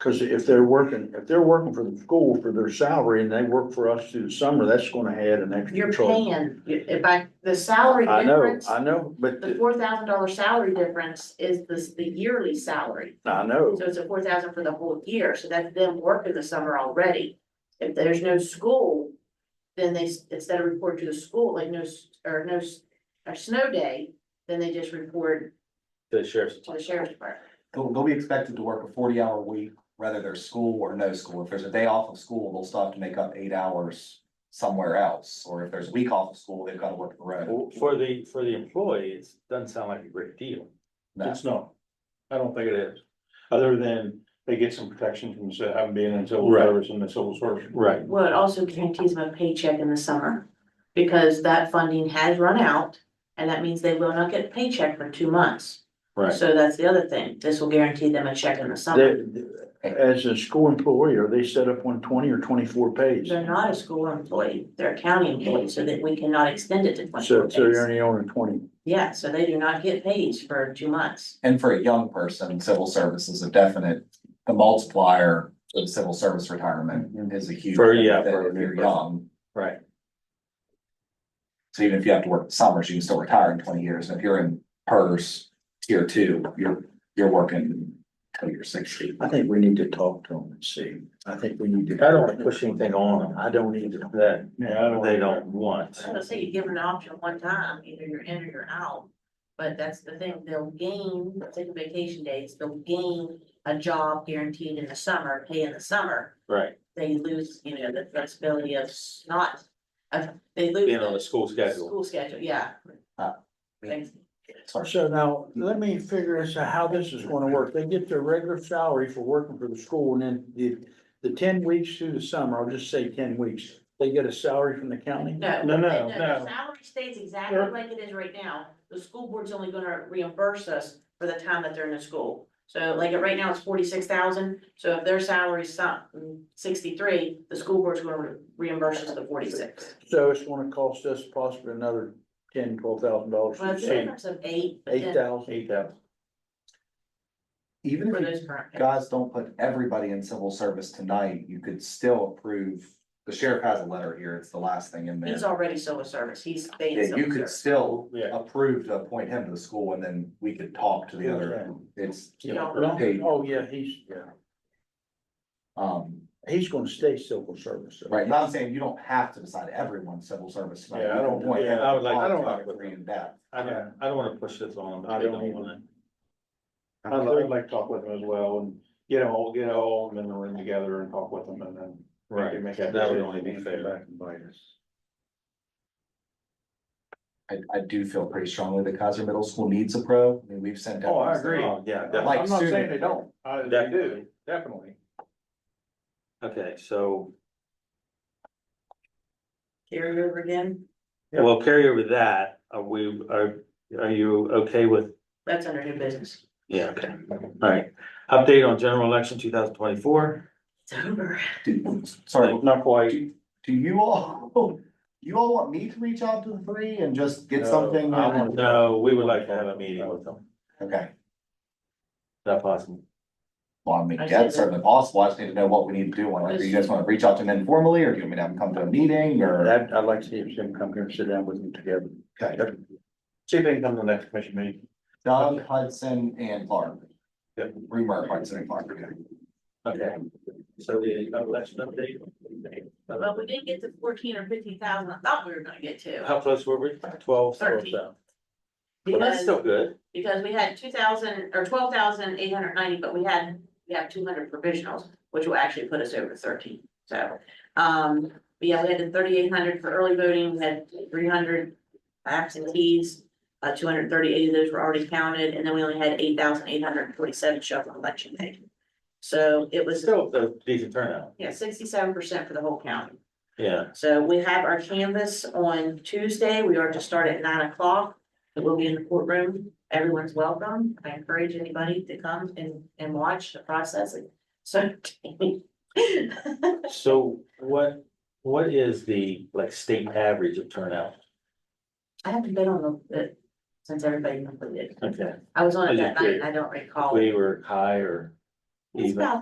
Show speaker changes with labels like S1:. S1: Cause if they're working, if they're working for the school for their salary and they work for us through the summer, that's gonna add an extra
S2: You're
S1: charge.
S2: paying, if I, the salary
S1: I know,
S2: difference,
S1: I know, but
S2: the four thousand dollar salary difference is the, the yearly salary.
S1: I know,
S2: So it's a four thousand for the whole year, so that's them working the summer already. If there's no school, then they, s- instead of report to the school, like no, s- or no, s- or snow day, then they just report
S3: to the sheriff's.
S2: to the sheriff's department.
S4: They'll, they'll be expected to work a forty hour week, whether there's school or no school. If there's a day off of school, they'll still have to make up eight hours somewhere else. Or if there's a week off of school, they've got to work the road.
S3: Well, For the, for the employee, it doesn't sound like a great deal.
S4: No.
S5: It's not. I don't think it is, other than they get some protection from se- having been in civil
S3: Right.
S5: service and the civil service.
S3: Right.
S2: Well, it also guarantees them a paycheck in the summer, because that funding has run out, and that means they will not get a paycheck for two months.
S3: Right.
S2: So that's the other thing, this will guarantee them a check in the summer.
S1: they, as a school employee, are they set up on twenty or twenty-four pays?
S2: They're not a school employee, they're a county employee, so that we cannot extend it to
S1: So,
S2: twenty-four
S1: so you're
S2: days.
S1: only on a twenty.
S2: Yeah, so they do not get paid for two months.
S4: And for a young person, civil service is a definite, the multiplier of civil service retirement is a huge.
S3: For- yeah,
S4: benefit
S3: for a
S4: If
S3: new
S4: you're
S3: person.
S4: young.
S3: Right.
S4: So even if you have to work summers, you can still retire in twenty years. And if you're in PERS tier two, you're, you're working till you're sixty.
S1: I think we need to talk to them and see. I think we need to.
S3: I don't wanna push anything on them.
S1: I don't either.
S3: That
S5: Yeah, I don't.
S3: they don't want.
S2: So say you give them an option one time, either you're in or you're out. But that's the thing, they'll gain, taking vacation days, they'll gain a job guaranteed in the summer, pay in the summer.
S3: Right.
S2: They lose, you know, the flexibility of s- not, of, they lose.
S3: Being on the
S2: the
S3: school schedule.
S2: School schedule, yeah.
S4: Uh,
S2: Thanks.
S1: So now, let me figure this out, how this is gonna work. They get their regular salary for working for the school and then the, the ten weeks through the summer, I'll just say ten weeks. They get a salary from the county?
S2: No.
S5: No, no,
S2: the
S5: no.
S2: Salary stays exactly
S5: Sure.
S2: like it is right now. The school board's only gonna reimburse us for the time that they're in the school. So like right now, it's forty-six thousand, so if their salary's some sixty-three, the school board's gonna re- reimburse us the forty-six.
S1: So it's gonna cost us possibly another ten, twelve thousand dollars.
S2: Well, it's a difference of eight, but
S1: Eight
S2: then
S1: thousand.
S5: Eight thousand.
S4: Even if
S2: for
S4: you
S2: those current. pay.
S4: guys don't put everybody in civil service tonight, you could still approve, the sheriff has a letter here, it's the last thing in there.
S2: He's already civil service, he's staying
S4: Yeah, you
S2: civil
S4: could
S2: service.
S4: still
S5: Yeah.
S4: approve to appoint him to the school and then we could talk to the other, it's,
S2: You don't-
S1: No?
S4: Eight.
S1: Oh, yeah, he's, yeah,
S4: um,
S1: he's gonna stay civil service. though.
S4: right, but I'm saying you don't have to decide everyone's civil service tonight.
S5: Yeah, I
S4: You can
S5: don't-
S4: appoint
S5: yeah,
S4: him
S5: I would like- I
S4: to
S5: don't
S4: talk
S5: like-
S4: to Three in depth.
S3: I don't, I don't wanna push this on them.
S5: I
S3: They
S5: don't
S3: don't
S5: either.
S3: wanna.
S5: I'd like I'd like to talk with them as well and get all, get all of them in the room together and talk with them and then. we can make
S3: That would only be fair.
S4: I, I do feel pretty strongly that Kaiser Middle School needs a pro, I mean, we've sent. out-
S5: Oh, I agree.
S3: Oh, yeah,
S5: I'm
S3: definitely.
S4: Like
S5: not saying
S4: student.
S5: they don't, I, they do,
S3: Definitely.
S5: definitely.
S3: Okay, so,
S2: Carry over again,
S5: Yeah.
S3: well, carry over that. Are we, are, are you okay with?
S2: that's under new business,
S3: Yeah, okay. All right. Update on general election two thousand twenty-four.
S2: it's over.
S4: Do- Sorry,
S5: Not quite.
S4: Do do you all, you all want me to reach out to the three and just get
S5: No,
S4: something?
S5: I want-
S3: No, we would like to have a meeting with them. Is
S4: Okay,
S3: that possible?
S4: well, I mean,
S2: I see
S4: that's
S2: that.
S4: certainly possible, I just need to know what we need to do, like, do you guys wanna reach out to them informally, or do you want me to have them come to a meeting, or?
S1: That, I'd like to see if Jim come here and sit down with them together.
S4: Okay.
S5: See if they can come to the next commission meeting.
S4: Doug Hudson and Clark.
S5: Yep.
S4: Rumor Hudson and Clark, okay.
S3: Okay. So the election update.
S2: Well, we didn't get to fourteen or fifteen thousand, I thought we were gonna get to.
S3: How close were we? Twelve.
S2: Thirteen.
S3: Well, that's
S2: because-
S3: still good.
S2: Because we had two thousand, or twelve thousand eight hundred ninety, but we had, we have two hundred provisionals, which will actually put us over thirteen, so. Um, but yeah, we had the thirty-eight hundred for early voting, we had three hundred absentees. Uh, two hundred thirty-eight of those were already counted, and then we only had eight thousand eight hundred forty-seven show up on election day. So it was,
S3: Still a decent turnout.
S2: yeah, sixty-seven percent for the whole county.
S3: Yeah.
S2: So we have our canvas on Tuesday. We are to start at nine o'clock. It will be in the courtroom. Everyone's welcome. I encourage anybody to come and, and watch the processing. So.
S3: So what, what is the like state average of turnout?
S2: I haven't been on the, the- since everybody completed.
S3: Okay,
S2: I was on
S3: I
S2: it
S3: just
S2: that night and I don't recall.
S3: we were high or
S2: It's
S3: even?
S2: about